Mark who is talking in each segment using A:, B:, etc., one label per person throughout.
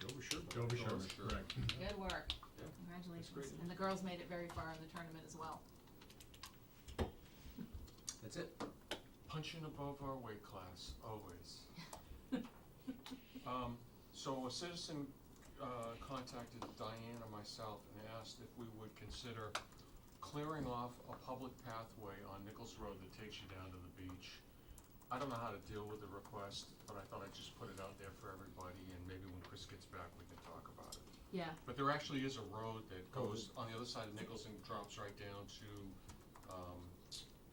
A: Joe Bishara,
B: Sure.
A: correct.
C: Good work.
B: Yeah.
C: Congratulations.
B: great.
C: And the girls made it very far in the tournament as well.
B: That's it.
D: Punching above our weight class, always. Um, so a citizen, uh, contacted Diane and myself and asked if we would consider clearing off a public pathway on Nichols Road that takes you down to the beach. I don't know how to deal with the request, but I thought I'd just put it out there for everybody and maybe when Chris gets back, we can talk about it.
C: Yeah,
D: But there actually is a road that
A: Oh,
D: goes on the other side of Nichols and drops right down to, um,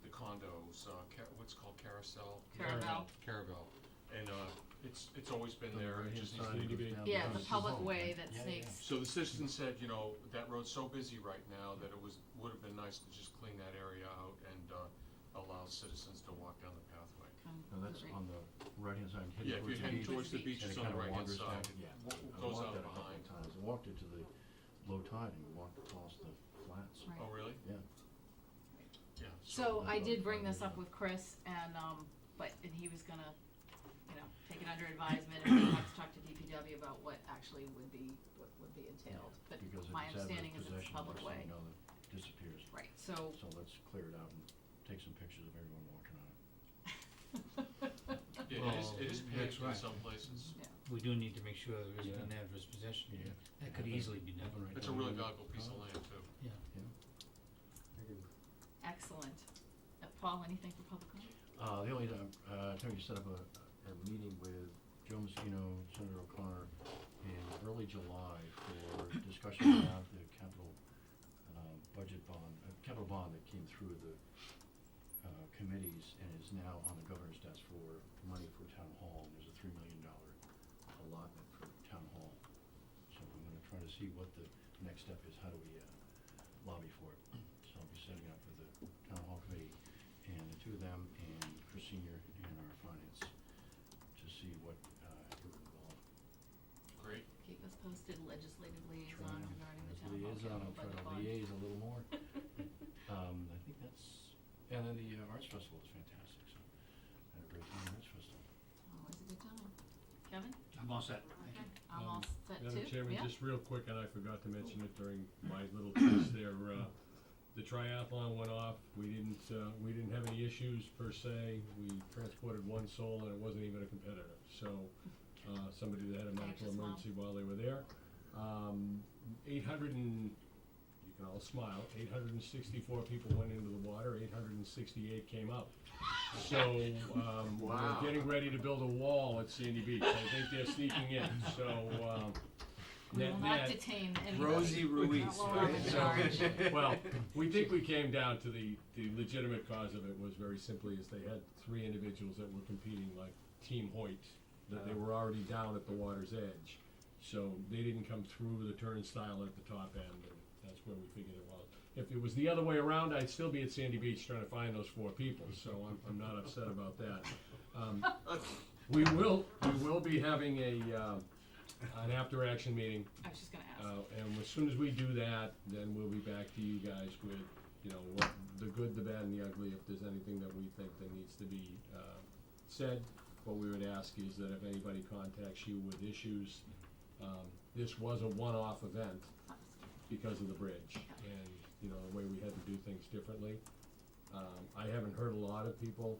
D: the condos, uh, Ca- what's it called Carousel?
C: Caravel.
D: Caravel, and, uh, it's, it's always been
A: On the
D: there, it
A: right-hand
D: just needs
A: side,
D: to
A: it
D: be.
A: goes down
C: Yeah,
A: to his
C: the public
A: home,
C: way
A: right?
C: that
E: Yeah, yeah,
C: snakes.
E: yeah.
D: So the citizen said, you know, that road's so busy right now that it was, would've been nice to just clean that area out and, uh, allow citizens to walk down the pathway.
C: Come
A: No, that's
C: right-
A: on the right-hand side,
D: Yeah,
A: heading
D: if you're
A: towards the
D: heading
A: beach. and
C: Towards
D: towards the beach, it's
A: it
D: on the
A: kinda
D: right-hand
A: wanders down-
D: side,
A: Yeah.
D: it
A: I
D: goes
A: walked
D: out
A: that a couple
D: behind.
A: times. I walked it to the low tide and walked across the flats.
C: right.
D: Oh, really?
A: Yeah.
D: Yeah.
C: So I
A: that's
C: did
A: what
C: bring
A: I'm
C: this
A: doing.
C: up with Chris and, um, but, and he was gonna, you know, take it under advisement and we'll have to talk to DPW about what actually would be, what would be entailed. But
A: Because if
C: my
A: it's out of
C: understanding is it's a
A: possession,
C: public
A: next thing
C: way.
A: you know, it disappears.
C: Right, so,
A: So let's clear it out and take some pictures of everyone walking on it.
D: Yeah, it is, it is paved
E: Well, Oh, that's
D: in
E: right.
D: some places.
E: We do need to make sure there
A: Yeah.
E: isn't an adverse possession.
A: Yeah.
E: That could easily be done.
A: Happened right
D: It's a
A: down
D: really
A: here.
D: valuable piece
E: Oh.
D: of land too.
C: excellent. Uh, Paul, anything for public comment?
A: Uh, the only time, uh, attorney set up a, a meeting with Joe Messino, Senator O'Connor, in early July for discussion about the capital, um, budget bond, uh, capital bond that came through the, uh, committees and is now on the governor's desk for money for town hall. There's a three million dollar allotment for town hall. So I'm gonna try to see what the next step is, how do we, uh, lobby for it. So I'll be setting up with the town hall committee and the two of them and Chris Senior and our finance to see what, uh, it would involve.
D: Great.
C: Keep us posted legislative
A: Try
C: liaison
A: and-
C: regarding the
A: as
C: town hall
A: liaison,
C: capital
A: I'll try
C: budget
A: to
C: bond.
A: liaise a little more. Um, I think that's, and then the uh, arts festival is fantastic, so I had a great time at arts festival.
C: Always Oh, a good time. Kevin?
E: I'm all set. Thank
C: Okay,
E: you.
C: I'm
F: Um,
C: all set too, yeah?
F: Madam Chairman, just real quick, and I forgot to mention it during my little piece there, uh, the triathlon went off, we didn't, uh, we didn't have any issues per se, we transported one soul and it wasn't even a competitor, so, uh, somebody that had a medical
C: Anxious mom.
F: emergency while they were there. Um, eight hundred and, you can all smile, eight hundred and sixty-four people went into the water, eight hundred and sixty-eight came up. So, um,
D: Wow.
F: we're getting ready to build a wall at Sandy Beach, I think they're sneaking in, so, um,
C: We will not
F: net-net,
C: detain anybody.
B: Rosie Ruiz,
C: Not while
B: right?
C: I'm in
B: So-
C: charge.
F: well, we think we came down to the, the legitimate cause of it was very simply is they had three individuals that were competing like Team Hoyt, that they were already down at the water's edge. So they didn't come through the turnstile at the top end, and that's where we figured it was. If it was the other way around, I'd still be at Sandy Beach trying to find those four people, so I'm, I'm not upset about that. Um, we will, we will be having a, uh, an after-action meeting
C: I was just gonna ask.
F: uh, and as soon as we do that, then we'll be back to you guys with, you know, what, the good, the bad, and the ugly, if there's anything that we think that needs to be, uh, said. What we would ask is that if anybody contacts you with issues, um, this was a one-off event because of the bridge, and, you know, the way we had to do things differently. Um, I haven't heard a lot of people,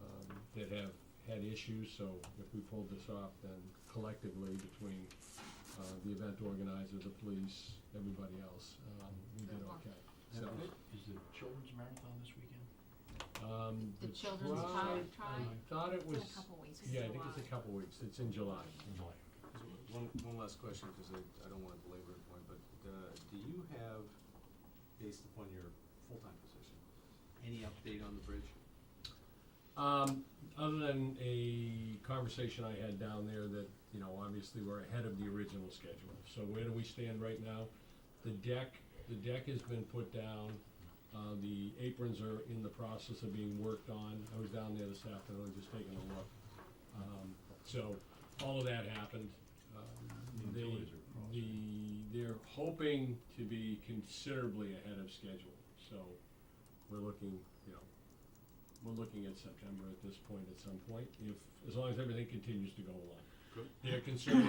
F: um, that have had issues, so if we pulled this off, then collectively between uh, the event organizer, the police, everybody else, um, we did
C: Good luck.
F: okay.
A: And
F: So,
A: Is the children's marathon this weekend?
F: um,
C: The
F: the
C: children's
F: tri-
C: try,
F: I
C: try,
F: thought it
C: in
F: was,
C: a couple weeks.
F: yeah, I think it's a couple weeks, it's in July.
B: One, one last question, because I, I don't wanna belabor the point, but, uh, do you have, based upon your full-time position, any update on the bridge?
F: Um, other than a conversation I had down there that, you know, obviously we're ahead of the original schedule. So where do we stand right now? The deck, the deck has been put down, uh, the aprons are in the process of being worked on. I was down there this afternoon just taking a look. Um, so all of that happened. Um,
A: The
F: they,
A: utilities are crossed.
F: the, they're hoping to be considerably ahead of schedule, so we're looking, you know, we're looking at September at this point, at some point, if, as long as everything continues to go along.
D: Good.
F: Their concern